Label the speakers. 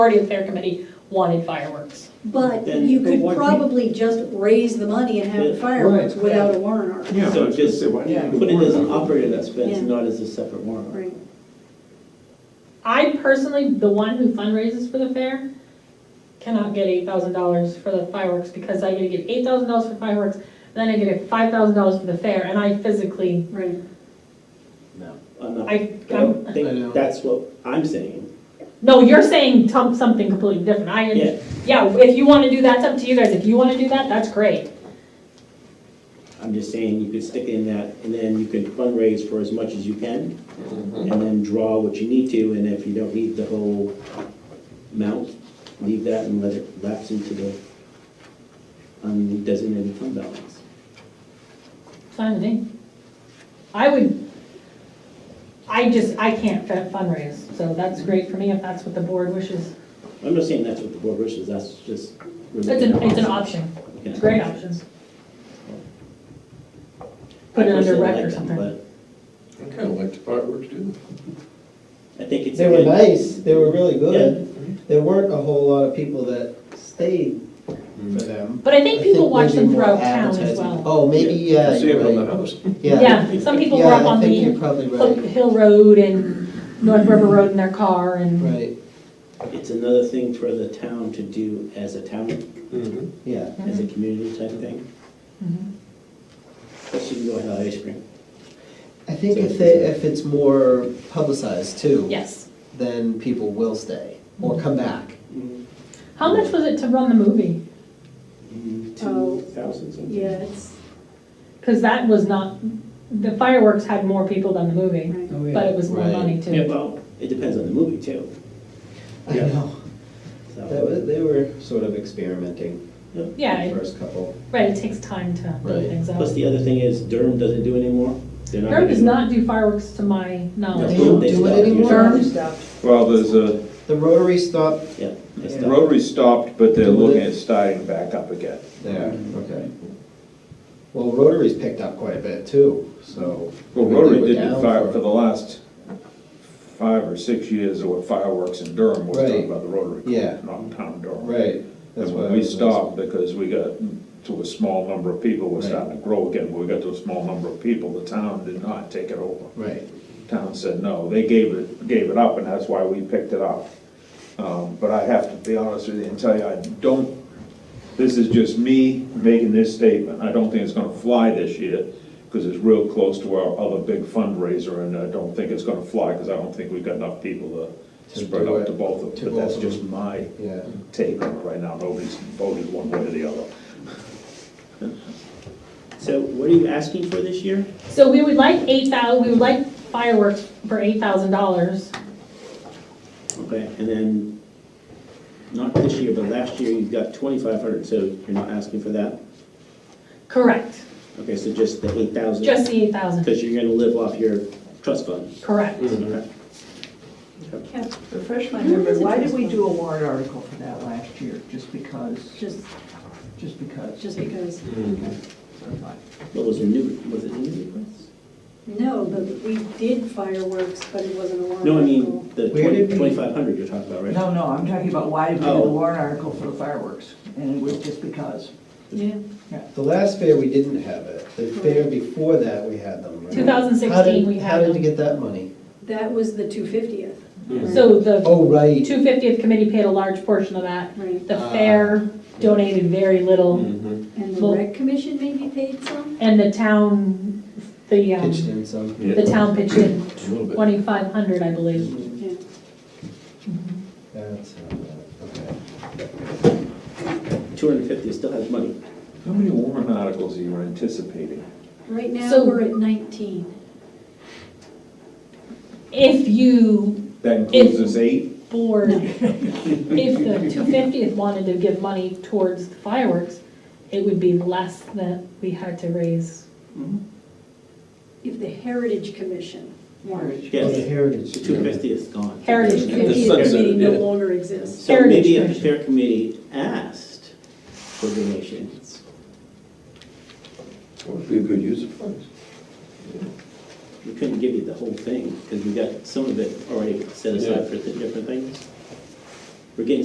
Speaker 1: Party of Fair Committee wanted fireworks.
Speaker 2: But
Speaker 3: Then-
Speaker 2: you
Speaker 3: but
Speaker 2: could
Speaker 3: what-
Speaker 2: probably just raise the money and have the
Speaker 3: Yeah,
Speaker 2: fireworks
Speaker 4: right.
Speaker 2: without a warrant article.
Speaker 4: Yeah,
Speaker 3: So
Speaker 4: so
Speaker 3: just-
Speaker 4: just, why do you
Speaker 2: yeah.
Speaker 4: need to
Speaker 3: Put it
Speaker 4: worry
Speaker 3: as an
Speaker 4: about
Speaker 3: operating expense,
Speaker 2: Yeah.
Speaker 3: not as a separate warrant.
Speaker 2: Right.
Speaker 1: I personally, the one who fundraises for the fair, cannot get eight thousand dollars for the fireworks, because I gotta get eight thousand dollars for fireworks, then I get five thousand dollars for the fair, and I physically,
Speaker 2: Right,
Speaker 3: I'm not, I
Speaker 1: I, I'm,
Speaker 3: don't
Speaker 4: I know.
Speaker 3: think that's what I'm saying.
Speaker 1: no, you're saying tom- something completely different, I,
Speaker 3: Yeah.
Speaker 1: yeah, if you wanna do that, it's up to you guys, if you wanna do that, that's great.
Speaker 3: I'm just saying you could stick it in that, and then you can fundraise for as much as you can, and then draw what you need to, and if you don't need the whole amount, leave that and let it lapse into the undesignated fund balance.
Speaker 1: Fine with me. I would, I just, I can't fa- fundraise, so that's great for me, if that's what the board wishes,
Speaker 3: I'm not saying that's what the board wishes, that's just.
Speaker 1: it's an, it's an option, it's a great option. Put it under rec or something.
Speaker 5: I kind of like the fireworks too.
Speaker 3: I think it's.
Speaker 6: They were
Speaker 3: good.
Speaker 6: nice, they were really good. There weren't a whole lot of people that stayed for them.
Speaker 1: But I
Speaker 6: I
Speaker 1: think people watch
Speaker 6: maybe
Speaker 1: them
Speaker 6: more
Speaker 1: throughout town as
Speaker 6: advertising.
Speaker 1: well.
Speaker 6: Oh, maybe, yeah,
Speaker 5: See it on
Speaker 6: you're
Speaker 5: the
Speaker 6: right.
Speaker 5: house.
Speaker 1: Yeah, some people were
Speaker 6: Yeah,
Speaker 1: up
Speaker 6: I
Speaker 1: on
Speaker 6: think You're
Speaker 1: the
Speaker 6: probably
Speaker 1: Hook
Speaker 6: right,
Speaker 1: Hill Road and North River Road in their car and,
Speaker 6: right,
Speaker 3: It's another thing for the town to do as a town,
Speaker 5: Mhm.
Speaker 6: yeah.
Speaker 3: as
Speaker 1: Mm-hmm.
Speaker 3: a community type thing.
Speaker 1: Mhm.
Speaker 3: Especially if you go and have ice cream.
Speaker 6: I think if they, if it's more publicized too.
Speaker 1: yes.
Speaker 6: Then people will stay or come back.
Speaker 1: How much was it to run the movie?
Speaker 2: Oh.
Speaker 3: Mm-hmm. Two thousand something.
Speaker 2: yeah, it's,
Speaker 1: Because that was not, the fireworks had more people than the movie,
Speaker 2: right.
Speaker 1: but it was more
Speaker 6: Oh, Right.
Speaker 1: money too.
Speaker 3: Yeah, well, it depends on the movie too,
Speaker 6: I
Speaker 3: Yeah.
Speaker 6: know, that
Speaker 3: so.
Speaker 6: was, they were sort of experimenting
Speaker 1: Yeah,
Speaker 6: the
Speaker 1: it-
Speaker 6: first couple.
Speaker 1: right, it takes time to build
Speaker 6: Right.
Speaker 1: things up.
Speaker 3: Plus, the other thing is Durham doesn't do anymore. They're
Speaker 1: Durham does
Speaker 3: gonna do-
Speaker 1: not do fireworks to my
Speaker 6: They
Speaker 1: knowledge.
Speaker 3: No.
Speaker 6: don't
Speaker 3: They
Speaker 6: do
Speaker 3: stopped
Speaker 6: it anymore?
Speaker 1: Durham?
Speaker 7: Well, there's a,
Speaker 6: The Rotary stopped
Speaker 3: Yeah. they
Speaker 6: Yeah.
Speaker 3: stopped.
Speaker 7: Rotary stopped, but they're looking at starting back up again.
Speaker 6: There,
Speaker 7: Mm-hmm.
Speaker 6: okay. Well, Rotary's picked up quite a bit too, so.
Speaker 7: Well,
Speaker 6: we
Speaker 7: Rotary
Speaker 6: were
Speaker 7: did it
Speaker 6: down
Speaker 7: fi-
Speaker 6: for-
Speaker 7: for the last five or six years, or fireworks in Durham was
Speaker 6: Right.
Speaker 7: done by the Rotary Club.
Speaker 6: Yeah.
Speaker 7: Not town Durham.
Speaker 6: Right. that's
Speaker 7: And
Speaker 6: why
Speaker 7: when
Speaker 6: I
Speaker 7: we
Speaker 6: was-
Speaker 7: stopped, because we got to a small number of people, we're
Speaker 6: Right.
Speaker 7: starting to grow again, but we got to a small number of people, the town did not take it over.
Speaker 6: Right,
Speaker 7: Town said no, they gave it, gave it up, and that's why we picked it up. Um, But I have to be honest with you and tell you, I don't, this is just me making this statement. I don't think it's gonna fly this year, because it's real close to our other big fundraiser, and I don't think it's gonna fly, because I don't think we've got enough people to
Speaker 6: To
Speaker 7: spread
Speaker 6: do
Speaker 7: out to
Speaker 6: it,
Speaker 7: both of
Speaker 6: to
Speaker 7: them. But that's
Speaker 6: both of
Speaker 7: just
Speaker 6: them.
Speaker 7: my
Speaker 6: yeah.
Speaker 7: take on it right now. Nobody's voted one way or the other.
Speaker 3: So what are you asking for this year?
Speaker 1: So we would like eight thousand. we would like fireworks for eight thousand dollars.
Speaker 3: Okay, and then, not this year, but last year, you got twenty-five hundred, so you're not asking for that?
Speaker 1: Correct,
Speaker 3: Okay, so just the eight thousand?
Speaker 1: just the eight thousand,
Speaker 3: Because you're gonna live off your trust fund.
Speaker 1: correct.
Speaker 3: Okay.
Speaker 8: Can't refresh my memory, why did we do a warrant article for that last year? Just because,
Speaker 2: just,
Speaker 8: just because?
Speaker 2: just because.
Speaker 5: Mm-hmm.
Speaker 3: What was the new, was it new request?
Speaker 2: No, but we did fireworks, but it wasn't a warrant
Speaker 3: No, I
Speaker 2: article.
Speaker 3: mean, the
Speaker 6: Where did we-
Speaker 3: twenty-five hundred you're talking about, right?
Speaker 8: No, no, I'm talking about why did we do
Speaker 3: Oh.
Speaker 8: the warrant article for the fireworks? And it was just because.
Speaker 2: Yeah,
Speaker 6: The last fair, we didn't have it. The
Speaker 1: Mm-hmm.
Speaker 6: fair before that, we had them, right?
Speaker 1: 2016
Speaker 6: How did-
Speaker 1: we
Speaker 6: How
Speaker 1: had
Speaker 6: did you
Speaker 1: them.
Speaker 6: get that money?
Speaker 2: that was the two fiftieth,
Speaker 1: So the
Speaker 6: Oh, right.
Speaker 1: two fiftieth committee paid a large portion of that.
Speaker 2: right?
Speaker 1: The
Speaker 6: Ah.
Speaker 1: fair donated very little,
Speaker 5: Mhm.
Speaker 6: Mm-hmm.
Speaker 2: And the
Speaker 1: Well-
Speaker 2: rec commission maybe paid some?
Speaker 1: and the town, the, um,
Speaker 6: Pitched in some.
Speaker 1: the town pitched in
Speaker 5: A little bit.
Speaker 1: twenty-five hundred, I believe.
Speaker 2: Yeah.
Speaker 6: That's, uh, okay.
Speaker 3: Two hundred and fifty still has money.
Speaker 7: How many warrant articles are you anticipating?
Speaker 2: Right now,
Speaker 1: So-
Speaker 2: we're at nineteen.
Speaker 1: If you,
Speaker 7: That
Speaker 1: If-
Speaker 7: includes this eight?
Speaker 1: board, if the two fiftieth wanted to give money towards the fireworks, it would be less that we had to raise.
Speaker 2: If the heritage commission warrant,
Speaker 6: Oh, the
Speaker 3: Yes,
Speaker 6: heritage.
Speaker 3: the two fifty is gone.
Speaker 1: Heritage
Speaker 2: the
Speaker 1: Committee.
Speaker 2: fiftieth
Speaker 5: sunset,
Speaker 2: committee no
Speaker 5: yeah.
Speaker 2: longer exists.
Speaker 3: So maybe if the
Speaker 1: Heritage Commission.
Speaker 3: fair committee asked for donations,
Speaker 5: Would be a good use of funds.
Speaker 3: we couldn't give you the whole thing, because we got some of it already set aside for the different things. we're getting